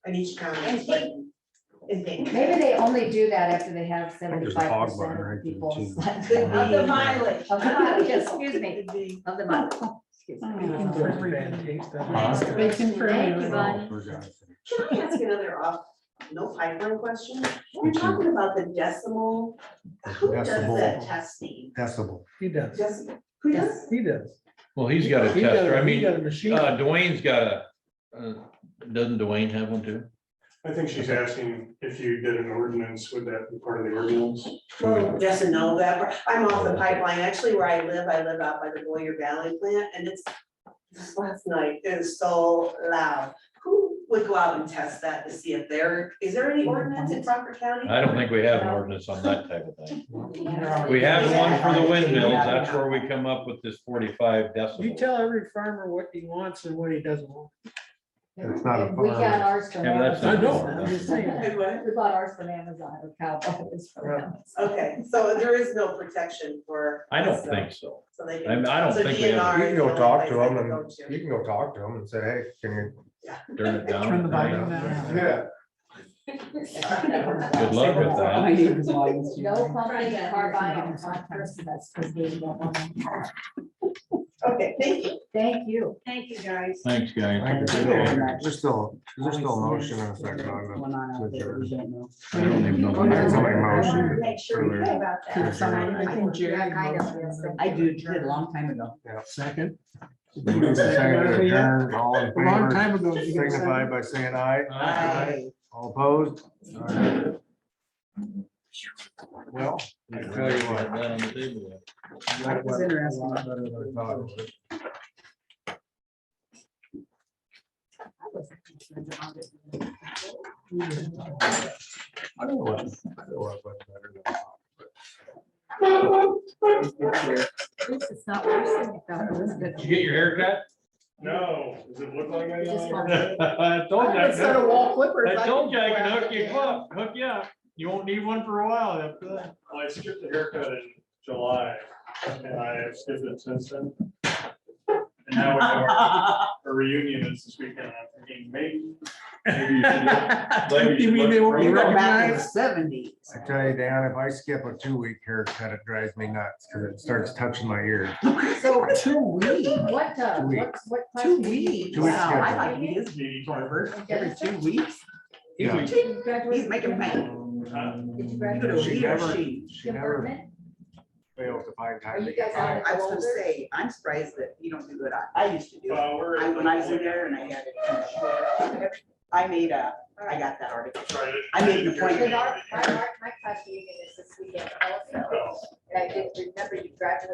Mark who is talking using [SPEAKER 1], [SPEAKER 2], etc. [SPEAKER 1] in each county.
[SPEAKER 2] And think-
[SPEAKER 1] And think.
[SPEAKER 3] Maybe they only do that after they have
[SPEAKER 4] there's a
[SPEAKER 3] seventy-five
[SPEAKER 4] hog
[SPEAKER 3] percent
[SPEAKER 4] barn right
[SPEAKER 3] of
[SPEAKER 4] there,
[SPEAKER 3] people.
[SPEAKER 4] too.
[SPEAKER 3] Of
[SPEAKER 2] The- Of
[SPEAKER 1] uh,
[SPEAKER 2] the mileage.
[SPEAKER 3] the, excuse me,
[SPEAKER 1] Could be.
[SPEAKER 3] of the month. Excuse me.
[SPEAKER 5] Bacon for everyone.
[SPEAKER 4] Huh?
[SPEAKER 5] Bacon for
[SPEAKER 3] Thank you,
[SPEAKER 5] everyone.
[SPEAKER 3] Bonnie.
[SPEAKER 4] Oh, for God's sake.
[SPEAKER 1] Can I ask another off, no pipeline question? We're
[SPEAKER 4] Would you-
[SPEAKER 1] talking about the decimal. Who does
[SPEAKER 4] Decimal.
[SPEAKER 1] that testing?
[SPEAKER 4] Decibel.
[SPEAKER 5] He does,
[SPEAKER 1] Just, who does?
[SPEAKER 5] he does.
[SPEAKER 6] Well, he's got a
[SPEAKER 5] He got
[SPEAKER 6] tester. I
[SPEAKER 5] he
[SPEAKER 6] mean,
[SPEAKER 5] got a
[SPEAKER 6] uh,
[SPEAKER 5] machine.
[SPEAKER 6] Dwayne's got a, uh, doesn't Dwayne have one too?
[SPEAKER 7] I think she's asking if you did an ordinance, would that be part of the ordinance?
[SPEAKER 1] Well, yes and no, that, I'm off the pipeline, actually where I live, I live out by the Boyer Valley plant, and it's, this last night, it is so loud. Who would go out and test that to see if there, is there any ordinance in Crawford County?
[SPEAKER 6] I don't think we have an ordinance on that type of thing.
[SPEAKER 1] don't.
[SPEAKER 6] We have one for the windmills. That's where we come up with this forty-five
[SPEAKER 5] You
[SPEAKER 6] decibel.
[SPEAKER 5] tell every farmer what he wants and what he doesn't want.
[SPEAKER 4] It's not a
[SPEAKER 3] And We got
[SPEAKER 4] farm.
[SPEAKER 3] ours from
[SPEAKER 6] Yeah, but that's
[SPEAKER 3] Amazon.
[SPEAKER 6] not- I know, I'm
[SPEAKER 5] just saying.
[SPEAKER 1] Good one.
[SPEAKER 3] We bought ours from Amazon, or cowboys from
[SPEAKER 5] Yeah.
[SPEAKER 3] Amazon.
[SPEAKER 1] Okay, so there is no protection for.
[SPEAKER 6] I don't
[SPEAKER 1] so-
[SPEAKER 6] think so.
[SPEAKER 1] So they
[SPEAKER 6] I
[SPEAKER 1] can.
[SPEAKER 6] mean, I don't
[SPEAKER 1] so
[SPEAKER 6] think we have,
[SPEAKER 1] DNR
[SPEAKER 4] You
[SPEAKER 1] is the
[SPEAKER 4] can go
[SPEAKER 1] only
[SPEAKER 4] talk
[SPEAKER 1] place
[SPEAKER 4] to
[SPEAKER 1] they
[SPEAKER 4] them
[SPEAKER 1] can go
[SPEAKER 4] and
[SPEAKER 1] to.
[SPEAKER 4] you can go talk to them and say, hey, can you?
[SPEAKER 6] turn it down.
[SPEAKER 5] Turn the volume
[SPEAKER 4] Yeah.
[SPEAKER 5] down.
[SPEAKER 6] Good luck with that.
[SPEAKER 3] No pumping and carbine on Christmas, because we don't want them.
[SPEAKER 1] Okay, thank you.
[SPEAKER 3] Thank you.
[SPEAKER 2] Thank you, guys.
[SPEAKER 6] Thanks,
[SPEAKER 4] There's
[SPEAKER 6] guys.
[SPEAKER 4] still- there's still, there's still a motion and a second on
[SPEAKER 6] I don't even know.
[SPEAKER 4] I had somebody
[SPEAKER 2] I
[SPEAKER 4] motion
[SPEAKER 2] wanted to make sure we knew about
[SPEAKER 4] Sure.
[SPEAKER 2] that.
[SPEAKER 1] I think Jerry
[SPEAKER 8] I do, did a long time ago.
[SPEAKER 5] Second.
[SPEAKER 4] that. Moved and seconded to adjourn. All in
[SPEAKER 5] A long
[SPEAKER 4] favor,
[SPEAKER 5] time ago. you got a second.
[SPEAKER 4] signify by saying aye.
[SPEAKER 1] Aye.
[SPEAKER 4] All opposed? All right. Well, I tell you what. that
[SPEAKER 8] was
[SPEAKER 4] went a
[SPEAKER 8] interesting.
[SPEAKER 4] lot better than I thought it would. I don't know what, I don't know what went better than I thought.
[SPEAKER 3] It's not worse than it felt. It was good.
[SPEAKER 6] Did you get your hair cut?
[SPEAKER 7] No, does it look like I?
[SPEAKER 3] Just one.
[SPEAKER 6] I told you. I could-
[SPEAKER 8] Instead of wall clippers.
[SPEAKER 6] I told you I can hook you
[SPEAKER 8] Yeah.
[SPEAKER 6] up, hook you up. You won't need one for a while after that.
[SPEAKER 7] Well, I skipped the haircut in July and I have skipped it since then. And now we have our- our reunion is this weekend. I'm thinking maybe, maybe you should look- maybe
[SPEAKER 5] You
[SPEAKER 7] you
[SPEAKER 5] mean
[SPEAKER 7] should
[SPEAKER 5] they won't
[SPEAKER 7] look
[SPEAKER 5] be
[SPEAKER 8] We
[SPEAKER 7] further.
[SPEAKER 8] were back in the
[SPEAKER 5] recognized?
[SPEAKER 8] seventies.
[SPEAKER 4] I tell you, Dan, if I skip a two-week haircut, it drives me nuts because it starts touching my ear.
[SPEAKER 8] So two weeks.
[SPEAKER 3] What, uh,
[SPEAKER 4] Two
[SPEAKER 3] what, what?
[SPEAKER 8] Two weeks.
[SPEAKER 4] Two weeks
[SPEAKER 8] Wow, I
[SPEAKER 4] schedule.
[SPEAKER 8] like he is
[SPEAKER 7] Maybe-
[SPEAKER 8] barber every two weeks.
[SPEAKER 4] Yeah.
[SPEAKER 8] He's making pain.
[SPEAKER 7] Huh?
[SPEAKER 3] Did you
[SPEAKER 8] Either
[SPEAKER 3] graduate?
[SPEAKER 8] he or she.
[SPEAKER 4] She never
[SPEAKER 3] Department?
[SPEAKER 4] fails to find
[SPEAKER 3] Are
[SPEAKER 4] time to
[SPEAKER 3] you
[SPEAKER 4] get
[SPEAKER 3] guys
[SPEAKER 4] by.
[SPEAKER 3] out?
[SPEAKER 8] I will say, I'm surprised that you don't do it. I- I used to do it.
[SPEAKER 7] Uh, we're-
[SPEAKER 8] I- When I was in there and I had it. I made a, I got that article.
[SPEAKER 7] Right.
[SPEAKER 8] I made an
[SPEAKER 3] Because
[SPEAKER 8] appointment.
[SPEAKER 3] our, my, my class meeting is this weekend also,
[SPEAKER 7] Oh.
[SPEAKER 3] and I didn't remember you graduated